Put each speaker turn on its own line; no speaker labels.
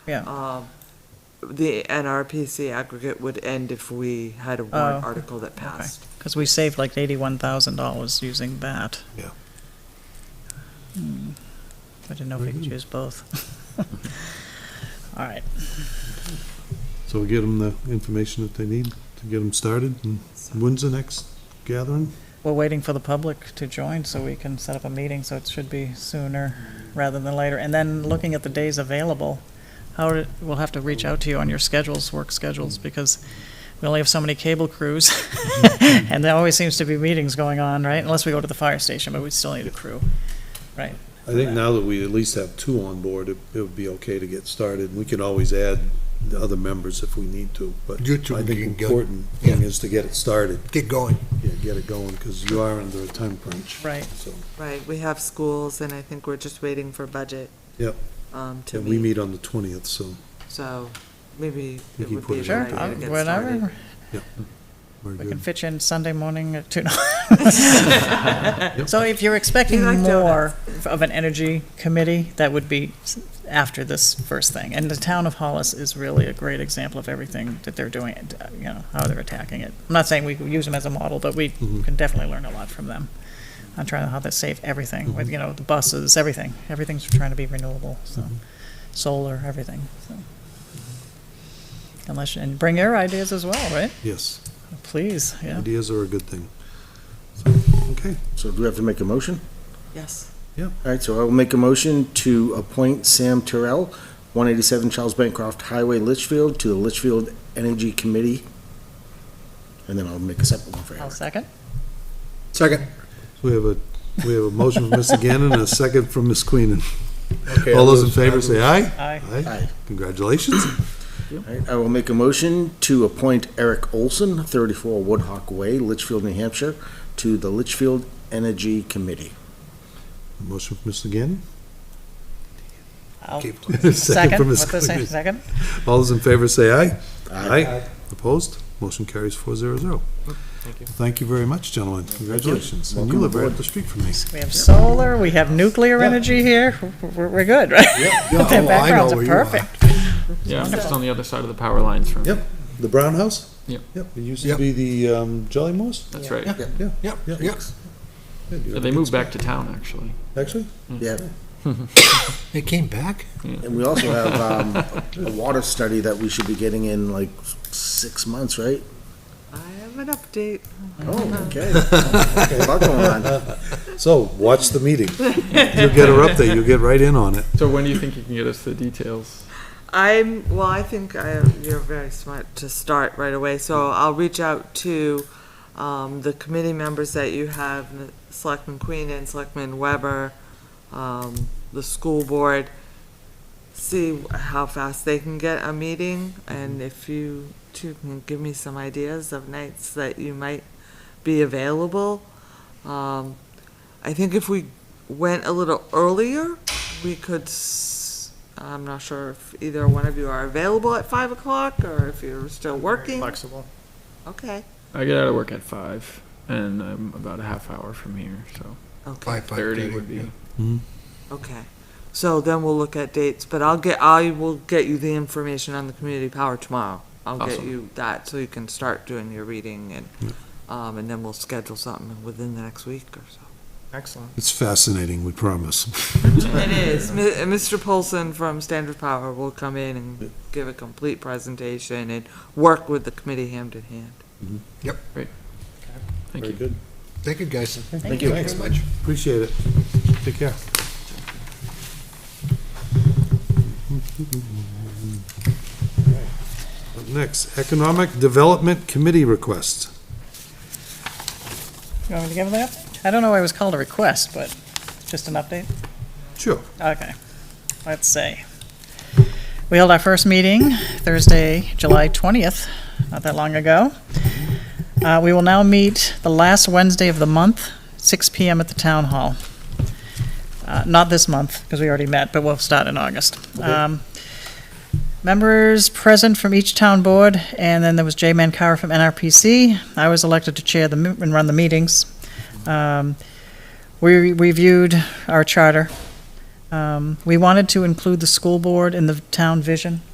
yeah,
Um, The NRPC aggregate would end if we had a warrant
Oh,
article that passed.
because we saved like eighty-one thousand dollars using that.
Yeah.
Hmm. I didn't know if we could use both. All right,
So we get them the information that they need to get them started, and when's the next gathering?
we're waiting for the public to join so we can set up a meeting, so it should be sooner rather than later. And then looking at the days available, how, do- we'll have to reach out to you on your schedules, work schedules, because we only have so many cable crews. And there always seems to be meetings going on, right? Unless we go to the fire station, but we still need a crew.
I think now that we at least have two on board, it, it would be okay to get started. We can always add the other members if we need to, but
You two
I
can
think
go-
important thing is to get it started,
Get going.
yeah, get it going, because you are under a time crunch.
Right.
So,
Right, we have schools and I think we're just waiting for budget.
Yep.
Um, to
and we
meet,
meet on the twentieth, so
so maybe
We
it
can
would
put
be a
it
good
Sure,
out
idea to
I'll-
get started.
whatever,
we're
we can
good.
fit you in Sunday morning at two. So if you're expecting
You like
more of an energy committee, that would be s- after this first thing. And the town of Hollis is really a great example of everything that they're doing, and, uh, you know, how they're attacking it. I'm not saying we use them as a model, but we
Mhm.
can definitely learn a lot from them on trying how to save everything, with, you know, the buses, everything. Everything's trying to be renewable, so, solar, everything, so. Unless, and bring your ideas as well, right?
Yes,
Please, yeah.
ideas are a good thing. So, Okay,
So do we have to make a motion?
Yes,
All right, so I will make a motion to appoint Sam Terrell, 187 Charles Bancroft Highway, Litchfield, to the Litchfield Energy Committee. And then I'll make a separate one for
I'll
Howard.
second.
Second.
we have a, we have a motion from Mr. Gannon and a second from Ms. Queenan. All those in favor say aye?
Aye.
Aye.
Congratulations.
All right, I will make a motion to appoint Eric Olson, 34 Woodhawk Way, Litchfield, New Hampshire, to the Litchfield Energy Committee.
Motion from Mr. Gannon?
I'll
Second
second.
from Ms.
What the second?
Queenan.
Second?
All those in favor say aye.
Aye.
Opposed? Motion carries four zero zero. Thank you. Thank you very much, gentlemen. Congratulations. And you
Welcome
live right
aboard.
up the street from me.
We have solar, we have nuclear energy here, we're, we're good, right?
Yeah,
Their
oh, I
backgrounds
know
are
where you are.
perfect.
Yeah, it's on the other side of the power lines from,
Yep, the Brown House?
Yep.
Yep, it used to
Yep.
be the um, Jolly Moose?
that's right.
Yeah, yeah.
Yep, yep.
Yeah, you
Yeah,
have
They
a good
moved back to town, actually.
spot. Actually?
Yeah,
They came back?
and we also have um, a water study that we should be getting in like six months, right?
I have an update.
Oh, okay. A lot going on.
So, watch the meeting. You'll get her up there, you'll get right in on it.
So when do you think you can get us the details?
I'm, well, I think I, you're very smart to start right away, so I'll reach out to, um, the committee members that you have, Selectman Queen and Selectman Weber, um, the school board, see how fast they can get a meeting, and if you two can give me some ideas of nights that you might be available. Um, I think if we went a little earlier, we could s- I'm not sure if either one of you are available at five o'clock or if you're still working.
Flexible.
Okay.
I get out of work at five, and I'm about a half hour from here, so
Okay.
Five, five
thirty would
yeah.
be.
Okay. So then we'll look at dates, but I'll get, I will get you the information on the community power tomorrow. I'll get
Awesome.
you that so you can start doing your reading and, um, and then we'll schedule something within the next week or so.
Excellent.
It's fascinating, we promise.
It is. Mi- uh, Mr. Polson from Standard Power will come in and give a complete presentation and work with the committee hand in hand.
Thank
Very
you.
good.
Thank you, guys.
Thank
you.
Thanks much.
Appreciate it. Take care. Up Next, Economic Development Committee request.
You want me to give them that? I don't know why it was called a request, but just an update?
Sure.
Okay, let's see. We held our first meeting Thursday, July 20th, not that long ago. Uh, We will now meet the last Wednesday of the month, 6 PM at the Town Hall. Uh, Not this month, because we already met, but we'll start in August. Um, Members present from each town board, and then there was Jay Mancara from NRPC. I was elected to chair the, m- and run the meetings. Um, We reviewed our charter Um, We wanted to include the school board in the town vision.